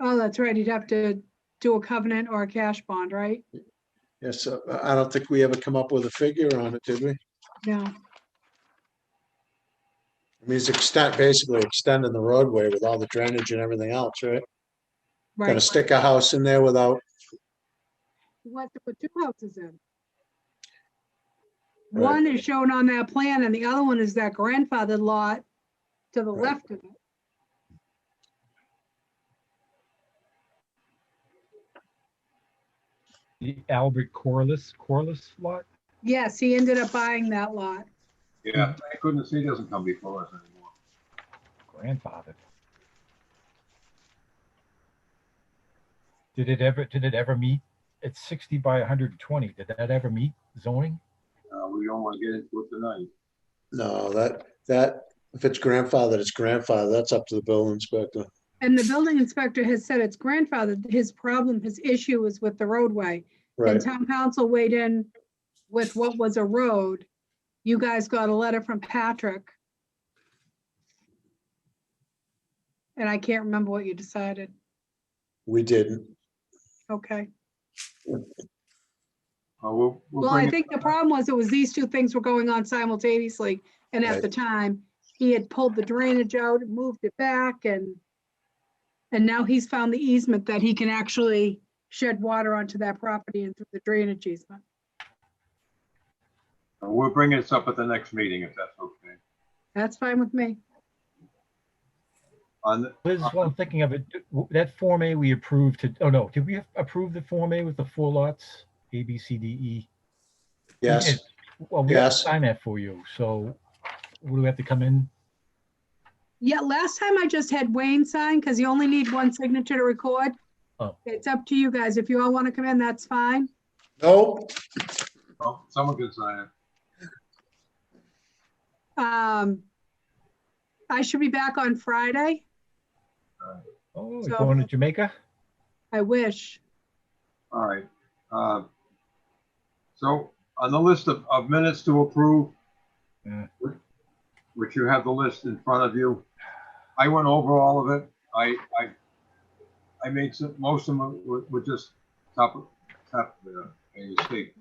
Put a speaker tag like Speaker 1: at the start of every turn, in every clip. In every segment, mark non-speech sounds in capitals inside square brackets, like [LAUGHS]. Speaker 1: Oh, that's right. You'd have to do a covenant or a cash bond, right?
Speaker 2: Yes, uh, I I don't think we ever come up with a figure on it, did we? I
Speaker 1: No.
Speaker 2: mean, it's extend, basically extending the roadway with all the drainage and everything else, right? Gonna
Speaker 1: Right.
Speaker 2: stick a house in there without,
Speaker 1: You want to put two houses in.
Speaker 2: Right.
Speaker 1: One is shown on that plan and the other one is that grandfather lot to the
Speaker 2: Right.
Speaker 1: left of it.
Speaker 3: The Albert Corliss, Corliss lot?
Speaker 1: Yes, he ended up buying that lot. Mm-hmm.
Speaker 4: Yeah, thank goodness he doesn't come before us anymore.
Speaker 3: Grandfather. Did it ever, did it ever meet? It's sixty by hundred and twenty. Did that ever meet zoning?
Speaker 4: Uh, we don't want to get into it tonight.
Speaker 2: no, that, that, if it's grandfathered, it's grandfathered. That's up to the building inspector.
Speaker 1: And the building inspector has said it's grandfathered. His problem, his issue is with the roadway. And
Speaker 2: Right,
Speaker 1: town council weighed in with what was a road. You guys got a letter from Patrick. And I can't remember what you decided.
Speaker 2: we didn't.
Speaker 1: Okay.
Speaker 4: Uh, we'll, we'll
Speaker 1: Well, I
Speaker 4: bring it-
Speaker 1: think the problem was it was these two things were going on simultaneously. And at
Speaker 2: Right.
Speaker 1: the time, he had pulled the drainage out, and moved it back and and now he's found the easement that he can actually shed water onto that property and through the drainage easement.
Speaker 4: uh, we'll bring this up at the next meeting if that's okay.
Speaker 1: That's fine with me.
Speaker 4: On, the-
Speaker 3: Liz, while I'm thinking of it, w- that Form A we approved to, oh no, did we approve the Form A with the four lots? A, B, C, D, E?
Speaker 2: Yes,
Speaker 3: Well, we have to
Speaker 2: Yes.
Speaker 3: sign that for you, so would we have to come in?
Speaker 1: Yeah, last time I just had Wayne sign because you only need one signature to record.
Speaker 3: Oh.
Speaker 1: It's up to you guys. If you all want to come in, that's fine.
Speaker 2: no,
Speaker 4: oh, someone can sign it.
Speaker 1: Um, I should be back on Friday.
Speaker 3: Oh,
Speaker 1: So-
Speaker 3: you're going to Jamaica?
Speaker 1: I wish.
Speaker 4: All right. Uh, So on the list of, of minutes to approve,
Speaker 3: Yeah.
Speaker 4: which you have the list in front of you, I went over all of it. I, I, I made some, most of them were, were just top, top, uh, a mistake.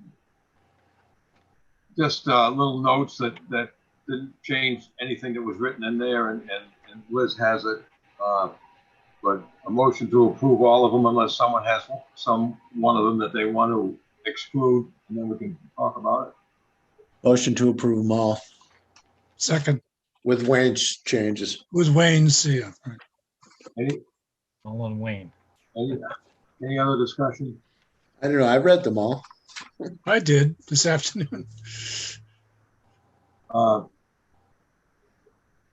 Speaker 4: Just, uh, little notes that, that didn't change anything that was written in there and, and and Liz has it. Uh, but a motion to approve all of them unless someone has some, one of them that they want to exclude, and then we can talk about
Speaker 2: motion to approve them all
Speaker 5: Second
Speaker 2: with Wayne's changes.
Speaker 5: was Wayne Seer.
Speaker 4: it. Any,
Speaker 3: All on Wayne.
Speaker 4: any, any other discussion?
Speaker 2: I don't know, I read them all.
Speaker 5: I did this afternoon.
Speaker 4: Uh,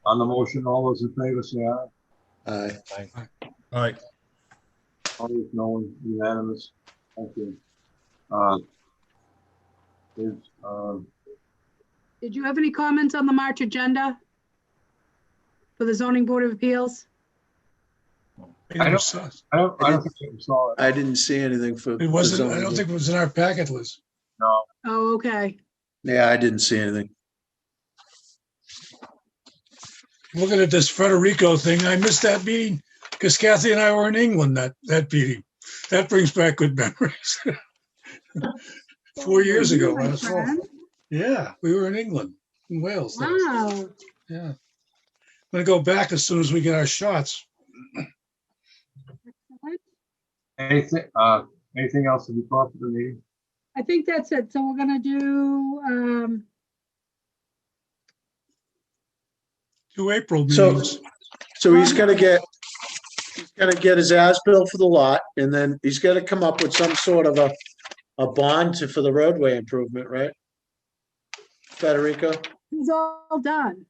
Speaker 4: On the motion, all those in favor say aye.
Speaker 2: I,
Speaker 5: All right.
Speaker 4: Opposed, no one, unanimous. Thank you. Uh, Is, um,
Speaker 1: Did you have any comments on the March agenda? For the zoning board of appeals?
Speaker 4: I don't-
Speaker 5: It
Speaker 4: I don't, I don't think you saw it.
Speaker 2: I didn't see anything for. the
Speaker 5: wasn't, I
Speaker 2: zoning.
Speaker 5: don't think it was in our packet, Liz.
Speaker 4: No,
Speaker 1: Oh, okay.
Speaker 2: Yeah, I didn't see anything.
Speaker 5: Looking at this Federico thing, I missed that meeting because Kathy and I were in England that, that meeting. That brings back good memories. [LAUGHS] Four years ago,
Speaker 1: My
Speaker 5: last fall.
Speaker 1: friend.
Speaker 5: Yeah, we were in England, in Wales. last-
Speaker 1: Wow,
Speaker 5: Yeah. I'm gonna go back as soon as we get our shots.
Speaker 4: anything, uh, anything else to be brought to the meeting?
Speaker 1: I think that's it. So we're gonna do, um,
Speaker 5: Two April
Speaker 2: So-
Speaker 5: meetings.
Speaker 2: So he's gonna get, he's gonna get his as-built for the lot, and then he's gonna come up with some sort of a, a bond to, for the roadway improvement, right? Federico?
Speaker 1: it's all done.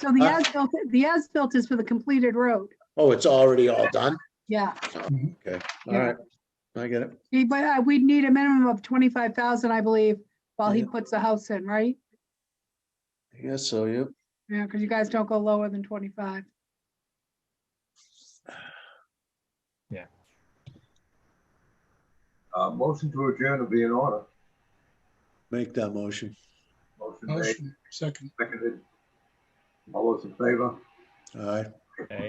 Speaker 1: So the
Speaker 2: Huh?
Speaker 1: as-built, the as-built is for the completed road.
Speaker 2: Oh, it's already all done?
Speaker 1: Yeah.
Speaker 2: All right, I get it.
Speaker 1: He- But uh, we'd need a minimum of twenty-five thousand, I believe, while he
Speaker 2: Yeah.
Speaker 1: puts the house in, right?
Speaker 2: I guess so, yeah.
Speaker 1: Yeah, because you guys don't go lower than twenty-five.
Speaker 4: Uh, Motion to adjourn will be in order.
Speaker 2: Make that motion.
Speaker 4: Motion made,
Speaker 5: Motion, Second.
Speaker 4: seconded. All those in favor?
Speaker 2: All right.